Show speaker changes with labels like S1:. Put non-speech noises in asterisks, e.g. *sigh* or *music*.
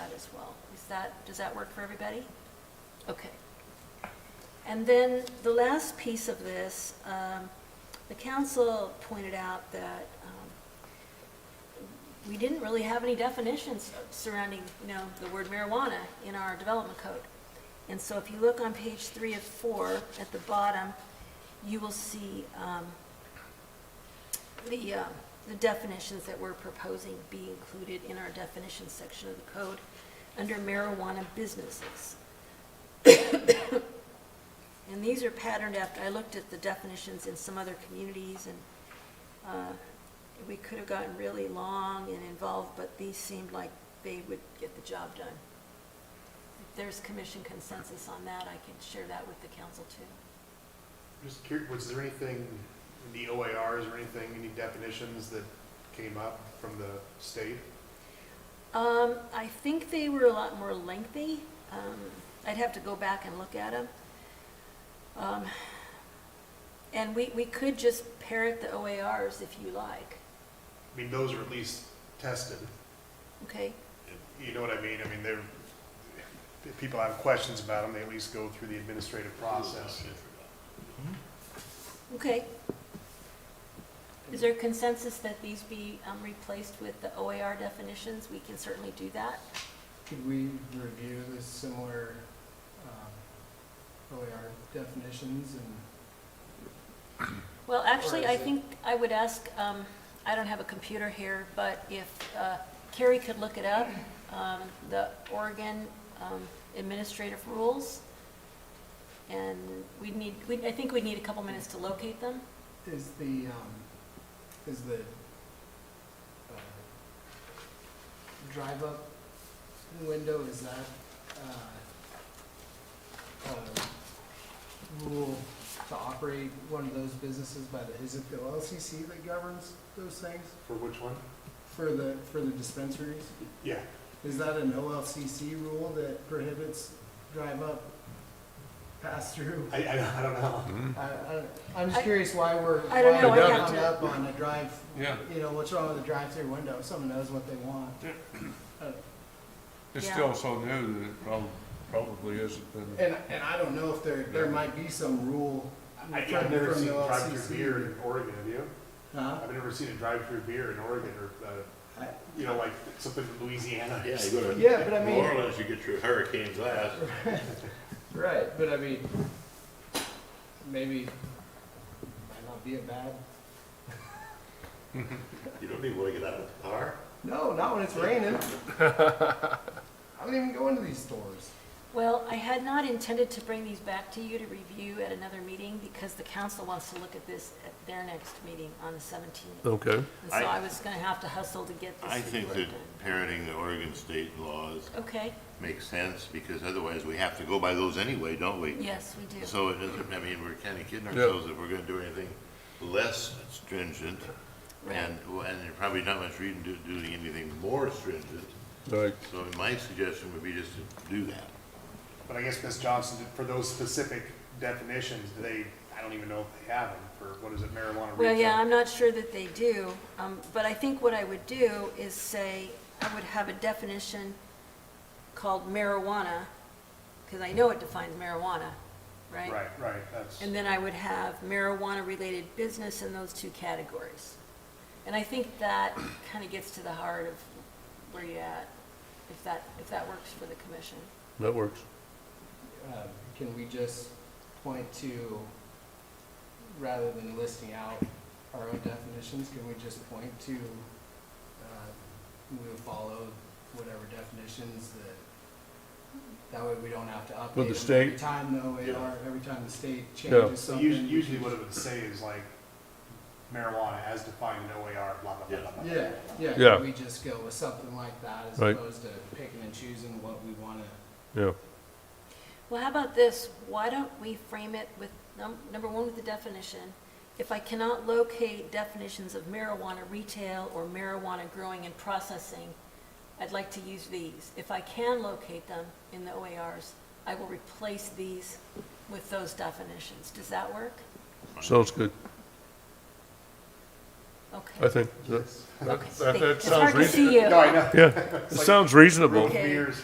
S1: that, does that work for everybody? Okay. And then the last piece of this, um, the council pointed out that um, we didn't really have any definitions surrounding, you know, the word marijuana in our development code. And so if you look on page three of four, at the bottom, you will see um, the, uh, the definitions that we're proposing be included in our definitions section of the code under marijuana businesses. And these are patterned after, I looked at the definitions in some other communities, and uh, we could have gotten really long and involved, but these seemed like they would get the job done. If there's commission consensus on that, I can share that with the council too.
S2: Just curious, was there anything in the OARs or anything, any definitions that came up from the state?
S1: Um, I think they were a lot more lengthy. Um, I'd have to go back and look at them. Um, and we, we could just parrot the OARs if you like,
S2: I mean, those are at least tested.
S1: okay?
S2: You know what I mean? I mean, they're, if people have questions about them, they at least go through the administrative process.
S1: Okay. Is there consensus that these be um, replaced with the OAR definitions? We can certainly do that.
S3: Could we review the similar um, OER definitions and?
S1: Well, actually,
S3: is
S1: I
S3: it-
S1: think I would ask, um, I don't have a computer here, but if uh, Carrie could look it up, um, the Oregon um, Administrative Rules, and we'd need, we'd- I think we'd need a couple minutes to locate them.
S3: Is the, um, is the uh, drive-up window, is that uh, a rule to operate one of those businesses by the, is it the LCC that governs those things
S2: For which one?
S3: for the, for the dispensaries?
S2: Yeah,
S3: Is that an OLCC rule that prohibits drive-up pass-through?
S2: *laughs*
S3: *laughs*
S2: I, I I don't know.
S4: Mm-hmm.
S3: I, I, am just curious why we're,
S1: I
S3: why
S1: don't
S3: we're
S1: know,
S5: I'd
S3: hung
S1: have to-
S3: up on a drive,
S5: Yeah,
S3: you know, what's wrong with a drive-through window? If Someone knows what they want. Uh,
S5: it's
S1: Yeah.
S5: still so new that it prob- probably isn't been,
S3: And, and I don't know if there, there might be some rule
S2: I-
S3: from
S2: I've never
S3: from
S2: seen
S3: the
S2: drive-through beer
S3: LCC.
S2: in Oregon, have you?
S3: Huh?
S2: I've never seen a drive-through beer in Oregon or, uh,
S3: I-
S2: you know, like something in Louisiana.
S4: Yeah, you go to
S3: Yeah, but I mean-
S4: New Orleans, you get your hurricanes last.
S3: Right, but I mean, maybe, might not be a bad,
S4: You don't even want to get out of the car.
S3: no, not when it's
S5: *laughs*
S3: raining. I don't even go into these stores.
S1: Well, I had not intended to bring these back to you to review at another meeting because the council wants to look at this at their next meeting on the 17th.
S5: okay,
S1: And so
S4: I-
S1: I was going to have to hustle to get this.
S4: I think that
S1: report done.
S4: parroting the Oregon state laws
S1: Okay,
S4: makes sense because otherwise we have to go by those anyway, don't we?
S1: yes, we do.
S4: So it doesn't, I mean, we're kind of kidding
S5: Yeah.
S4: ourselves if we're going to do anything less stringent
S1: Right.
S4: and, well, and there's probably not much reason to doing anything more stringent.
S5: right.
S4: So my suggestion would be just to do that.
S2: But I guess, Ms. Johnson, did- for those specific definitions, do they, I don't even know if they have them for, what is it, marijuana retail?
S1: Well, yeah, I'm not sure that they do, um, but I think what I would do is say, I would have a definition called marijuana, because I know it defines marijuana, right?
S2: Right, right, that's,
S1: And then I would have marijuana-related business in those two categories. And I think that kind of gets to the heart of where you're at, if that, if that works for the commission.
S5: That works.
S3: um, can we just point to, rather than listing out our own definitions, can we just point to, uh, we'll follow whatever definitions that, that way we don't have to update
S5: With the
S3: them
S5: state?
S3: Every time though,
S4: Yeah.
S3: or every time the state
S5: Yeah.
S3: changes
S2: so
S3: something.
S2: usually, usually what it would say is like marijuana as defined in OAR, blah, blah, blah, blah, blah.
S3: Yeah, yeah,
S5: Yeah.
S3: can we just go with something like that as
S5: Right.
S3: opposed to picking and choosing what we wanna,
S5: Yeah,
S1: Well, how about this? Why don't we frame it with, num- number one, with the definition? If I cannot locate definitions of marijuana retail or marijuana growing and processing, I'd like to use these. If I can locate them in the OARs, I will replace these with those definitions. Does that work?
S5: sounds good. I
S1: Okay.
S5: think, that-
S1: Okay.
S5: that- that
S1: It's
S5: sounds
S1: hard to see you.
S2: No, I know.
S5: yeah, it sounds reasonable.
S1: Okay.
S2: Beers